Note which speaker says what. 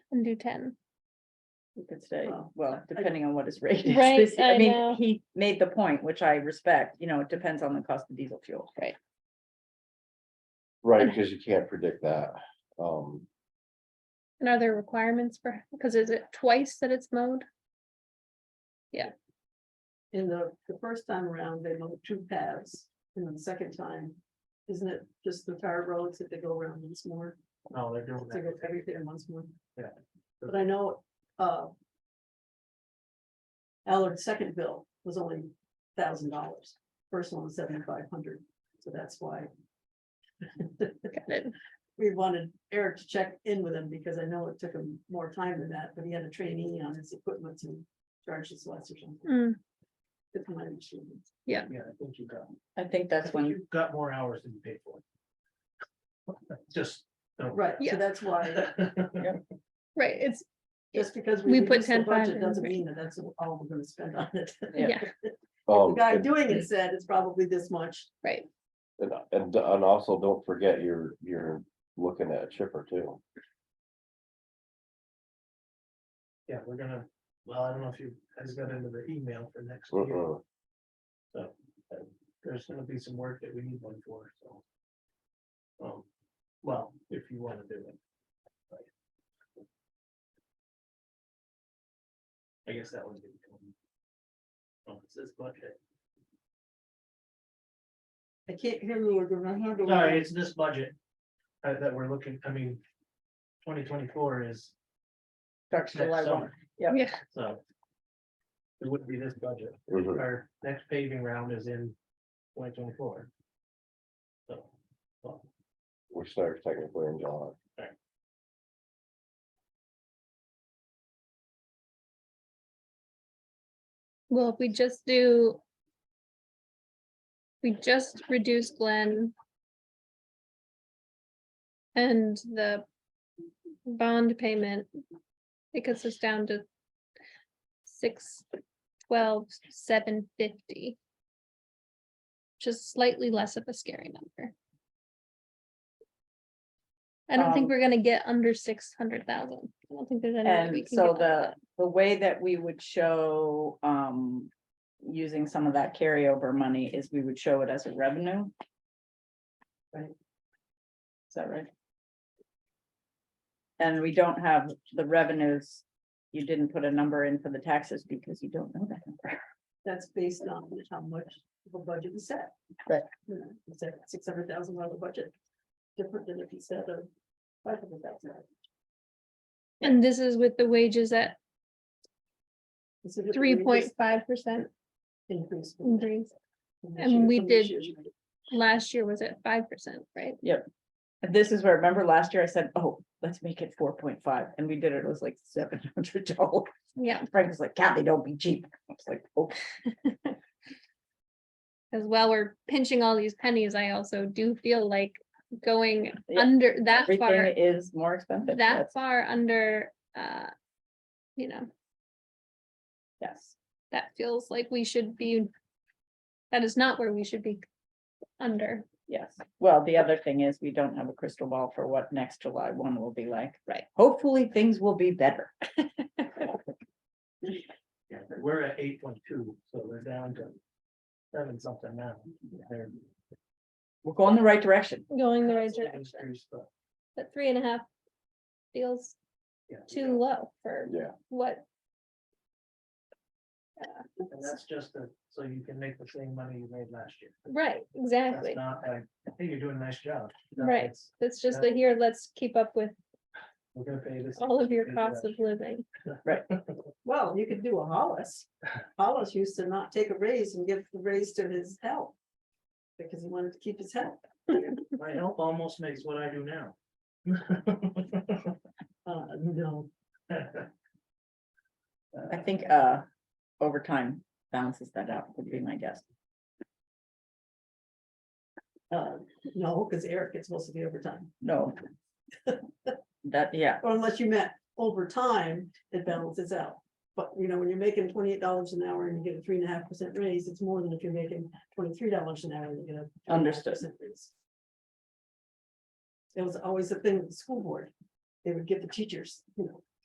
Speaker 1: and do ten.
Speaker 2: He could stay,
Speaker 3: Well,
Speaker 2: well,
Speaker 3: I-
Speaker 2: depending on what his rate is.
Speaker 1: Right,
Speaker 2: This-
Speaker 1: I
Speaker 2: I
Speaker 1: know.
Speaker 2: mean, he made the point, which I respect, you know, it depends on the cost of diesel fuel.
Speaker 4: Right, because you can't predict that. Um,
Speaker 1: And are there requirements for, because is it twice that it's mowed?
Speaker 3: In the, the first time around, they mowed two paths, and then the second time, isn't it just the tire roads that they go around once more?
Speaker 5: No, Oh, they're doing
Speaker 3: They go
Speaker 5: that.
Speaker 3: everything once more.
Speaker 5: Yeah.
Speaker 3: But I know, uh. Allard's second bill was only thousand dollars, first one was seventy-five hundred, so that's why.
Speaker 1: Got it.
Speaker 3: We wanted Eric to check in with him, because I know it took him more time than that, but he had a trainee on his equipment to charge us less or something.
Speaker 1: Mm,
Speaker 3: It's my understanding.
Speaker 5: Yeah, I think you got,
Speaker 2: I think
Speaker 5: I
Speaker 2: that's
Speaker 5: think
Speaker 2: when,
Speaker 5: you've got more hours than you paid for. Just. don't-
Speaker 3: Right,
Speaker 1: Yeah.
Speaker 3: so that's why,
Speaker 1: Right, it's,
Speaker 3: just because
Speaker 1: We
Speaker 3: we
Speaker 1: put
Speaker 3: reduced the
Speaker 1: 10,500
Speaker 3: budget doesn't
Speaker 1: right.
Speaker 3: mean that that's all we're gonna spend on it.
Speaker 2: Yeah.
Speaker 1: yeah,
Speaker 3: The
Speaker 4: um,
Speaker 3: guy
Speaker 4: and-
Speaker 3: doing it said it's probably this much.
Speaker 1: right,
Speaker 4: and, and, and also don't forget you're, you're looking at a chipper too.
Speaker 5: Yeah, we're gonna, well, I don't know if you guys got into the email for next year,
Speaker 4: Mm-mm.
Speaker 5: but there's gonna be some work that we need one for, so. Um, well, if you wanna do it. I guess that one's gonna come. Oh, it's this budget.
Speaker 3: I can't hear you, we're gonna handle.
Speaker 5: Sorry, it's this budget. uh, that we're looking, I mean. Twenty twenty-four is
Speaker 2: starts July
Speaker 5: next
Speaker 2: one.
Speaker 5: summer,
Speaker 2: Yep.
Speaker 1: yeah,
Speaker 5: so. It wouldn't be this budget.
Speaker 4: Mhm.
Speaker 5: Our next paving round is in twenty twenty-four. So, well,
Speaker 4: Which starts technically in July.
Speaker 1: well, if we just do. We just reduce Glenn. And the bond payment, because it's down to six, twelve, seven fifty. Just slightly less of a scary number. I don't think
Speaker 2: Um,
Speaker 1: we're gonna get under six hundred thousand. I don't think there's any. way we
Speaker 2: And
Speaker 1: can get
Speaker 2: so
Speaker 1: under
Speaker 2: the,
Speaker 1: that.
Speaker 2: the way that we would show, um, using some of that carryover money is we would show it as a revenue. Right? Is that right? And we don't have the revenues, you didn't put a number in for the taxes because you don't know that number.
Speaker 3: That's based on how much the budget is set.
Speaker 2: Right.
Speaker 3: You know, It's a six hundred thousand dollar budget, different than if he said a five hundred thousand.
Speaker 1: And this is with the wages at three point five percent
Speaker 3: Increase. from this-
Speaker 1: increase.
Speaker 3: from this
Speaker 1: and
Speaker 3: year-
Speaker 1: we
Speaker 3: from this
Speaker 1: did-
Speaker 3: year's rate.
Speaker 1: Last year was at five percent, right?
Speaker 2: This is where, remember last year I said, oh, let's make it four point five, and we did it, it was like seven hundred dollars.
Speaker 1: Yeah,
Speaker 2: Frank was like, God, they don't be cheap. I was like, oh,
Speaker 1: because while we're pinching all these pennies, I also do feel like going
Speaker 2: Yeah,
Speaker 1: under that far,
Speaker 2: everything is more expensive.
Speaker 1: that
Speaker 2: That's-
Speaker 1: far under, uh, you know,
Speaker 2: Yes,
Speaker 1: that feels like we should be, that is not where we should be under,
Speaker 2: yes. Well, the other thing is, we don't have a crystal ball for what next July one will be like.
Speaker 1: Right.
Speaker 2: Hopefully, things will be better.
Speaker 5: yeah, we're at eight point two, so we're down to seven something now. They're-
Speaker 2: We're going the right direction.
Speaker 1: going the right
Speaker 5: it's an
Speaker 1: direction.
Speaker 5: increase, but,
Speaker 1: But three and a half feels
Speaker 5: yeah.
Speaker 1: too low for
Speaker 4: Yeah,
Speaker 1: what, uh,
Speaker 5: And that's just a- so you can make the same money you made last year.
Speaker 1: right,
Speaker 5: That's
Speaker 1: exactly.
Speaker 5: not, I I think you're doing a nice job. No,
Speaker 1: Right.
Speaker 5: it's-
Speaker 1: It's just that here, let's keep up with
Speaker 5: We're gonna pay this.
Speaker 1: all of your
Speaker 5: Yeah.
Speaker 1: costs of living.
Speaker 3: Well, you could do a Hollis. Hollis used to not take a raise and give the raise to his help. Because he wanted to keep his help.
Speaker 5: My help almost makes what I do now.
Speaker 3: Uh, no,
Speaker 2: I think, uh, overtime balances that out, would be my guess.
Speaker 3: uh, no, because Eric gets supposed to be overtime,
Speaker 2: No. That, yeah,
Speaker 3: or unless you met overtime, it balances out. But you know, when you're making twenty-eight dollars an hour and you get a three and a half percent raise, it's more than if you're making twenty-three dollars an hour and you get a.
Speaker 2: Understood.
Speaker 3: 3.5% raise. It was always a thing with the school board. They would give the teachers, you know,